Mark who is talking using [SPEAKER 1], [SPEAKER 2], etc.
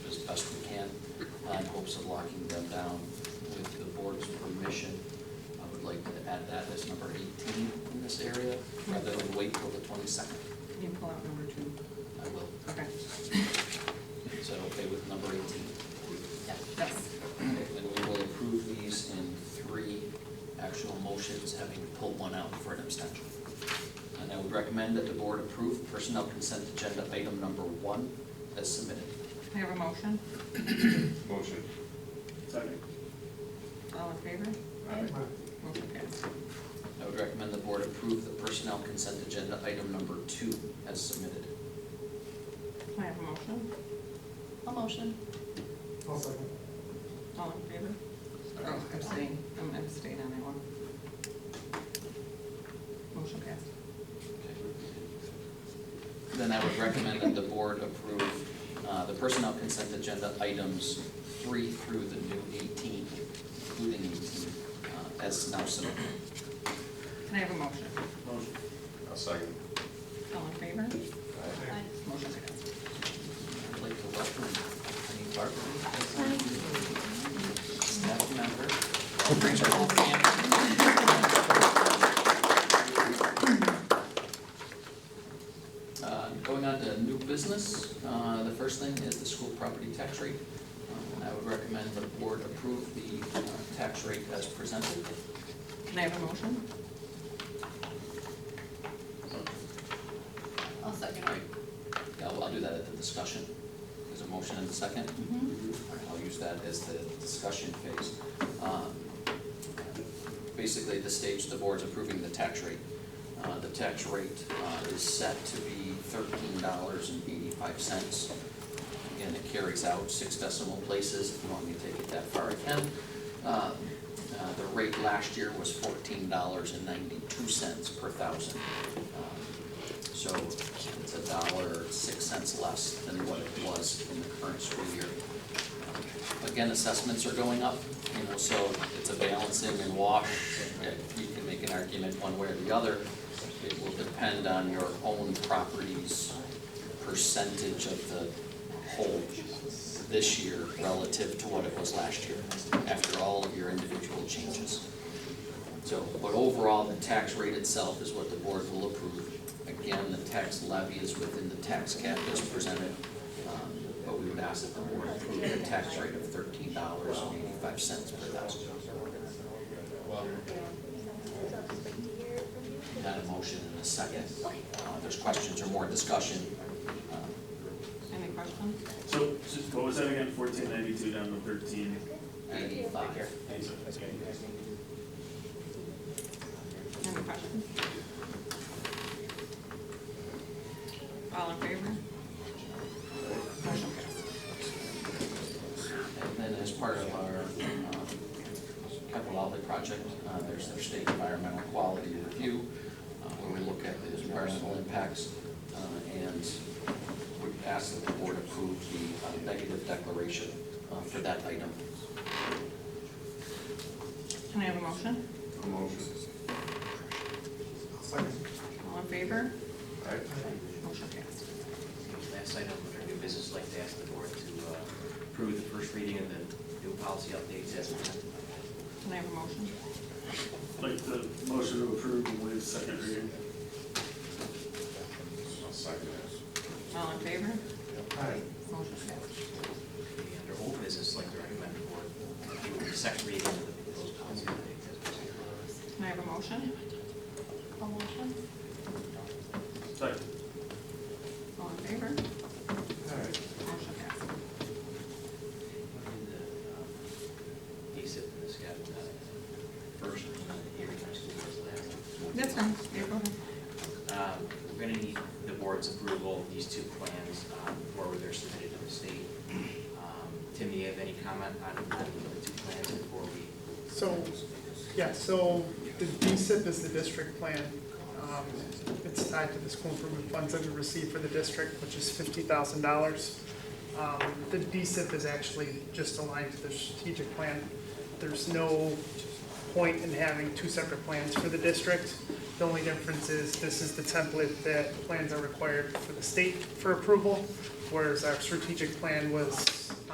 [SPEAKER 1] best we can uh, in hopes of locking them down. With the board's permission, I would like to add that as number 18 in this area, rather than wait till the 22nd.
[SPEAKER 2] Can you pull out number two?
[SPEAKER 1] I will.
[SPEAKER 2] Okay.
[SPEAKER 1] Is that okay with number 18?
[SPEAKER 2] Yes.
[SPEAKER 1] Okay, Then we will approve these in three actual motions, having pulled one out for an abstention. And I would recommend that the board approve personnel consent agenda item number one as submitted.
[SPEAKER 2] May I have a motion?
[SPEAKER 3] Motion. Second.
[SPEAKER 2] All in favor?
[SPEAKER 3] Aye.
[SPEAKER 2] Motion passed.
[SPEAKER 1] I would recommend the board approve the personnel consent agenda item number two as submitted.
[SPEAKER 2] May I have a motion?
[SPEAKER 1] A motion.
[SPEAKER 4] I'll second.
[SPEAKER 2] All in favor? Oh, abstain. I'm abstaining on that one. Motion passed.
[SPEAKER 1] Then I would recommend that the board approve uh, the personnel consent agenda items three through the new 18, including 18, uh, as now submitted.
[SPEAKER 2] Can I have a motion?
[SPEAKER 3] Motion. I'll second.
[SPEAKER 2] All in favor?
[SPEAKER 3] Aye.
[SPEAKER 2] Motion passed.
[SPEAKER 1] I'd like to welcome Penny Barton as a staff member. Brings her whole family. Uh, Going on to new business, uh, the first thing is the school property tax rate. Um, I would recommend the board approve the uh, tax rate as presented.
[SPEAKER 2] Can I have a motion?
[SPEAKER 5] I'll second
[SPEAKER 1] Right. Yeah, well, I'll do that at the discussion. There's a motion and a second. All right, I'll use that as the discussion phase. Um, Basically, at this stage, the board's approving the tax rate. Uh, The tax rate uh, is set to be thirteen dollars and eighty-five cents. Again, it carries out six decimal places, if you want me to take it that far, I can. Um, uh, The rate last year was fourteen dollars and ninety-two cents per thousand. Um, So it's a dollar, six cents less than what it was in the current school year. Again, assessments are going up, you know, so it's a balancing and wash. You can make an argument one way or the other. It will depend on your own property's percentage of the whole this year relative to what it was last year, after all of your individual changes. So, but overall, the tax rate itself is what the board will approve. Again, the tax levy is within the tax cap as presented, um, but we would ask that the board approve the tax rate of thirteen dollars and eighty-five cents per thousand. Not a motion and a second. Uh, There's questions or more discussion. Uh,
[SPEAKER 2] Any questions?
[SPEAKER 6] So, so what was that again, fourteen ninety-two down to thirteen?
[SPEAKER 1] Eighty-five.
[SPEAKER 2] Any questions? All in favor? Motion passed.
[SPEAKER 1] And then as part of our um, capital outlay project, uh, there's their state environmental quality review, uh, where we look at the environmental impacts, uh, and we ask that the board approve the uh, negative declaration uh, for that item.
[SPEAKER 2] Can I have a motion?
[SPEAKER 3] A motion.
[SPEAKER 4] I'll second.
[SPEAKER 2] All in favor?
[SPEAKER 3] Aye.
[SPEAKER 2] Motion passed.
[SPEAKER 7] Last item under new business, I'd like to ask the board to uh, approve the first reading of the new policy updates as presented.
[SPEAKER 2] Can I have a motion?
[SPEAKER 6] Like the motion to approve and waive second reading?
[SPEAKER 3] I'll second it.
[SPEAKER 2] All in favor?
[SPEAKER 4] Aye.
[SPEAKER 2] Motion passed.
[SPEAKER 7] Under old business, I'd like to recommend the board approve the second reading of the proposed policy updates as presented.
[SPEAKER 2] Can I have a motion?
[SPEAKER 5] A motion?
[SPEAKER 6] Second.
[SPEAKER 2] All in favor? Motion
[SPEAKER 4] Aye.
[SPEAKER 2] passed.
[SPEAKER 7] The, uh, ASIP, this got uh, first uh, hearing, I suppose, last.
[SPEAKER 2] That's fine. Yeah, go ahead.
[SPEAKER 7] Um, We're going to need the board's approval of these two plans um, before they're submitted to the state. Um, Tim, do you have any comment on on the two plans before we?
[SPEAKER 8] So, yeah, so the DSIP is the district plan. Um, It's tied to the school improvement funds that we receive for the district, which is fifty thousand dollars. Um, The DSIP is actually just aligned to the strategic plan. There's no point in having two separate plans for the district. The only difference is this is the template that plans are required for the state for approval, whereas our strategic plan was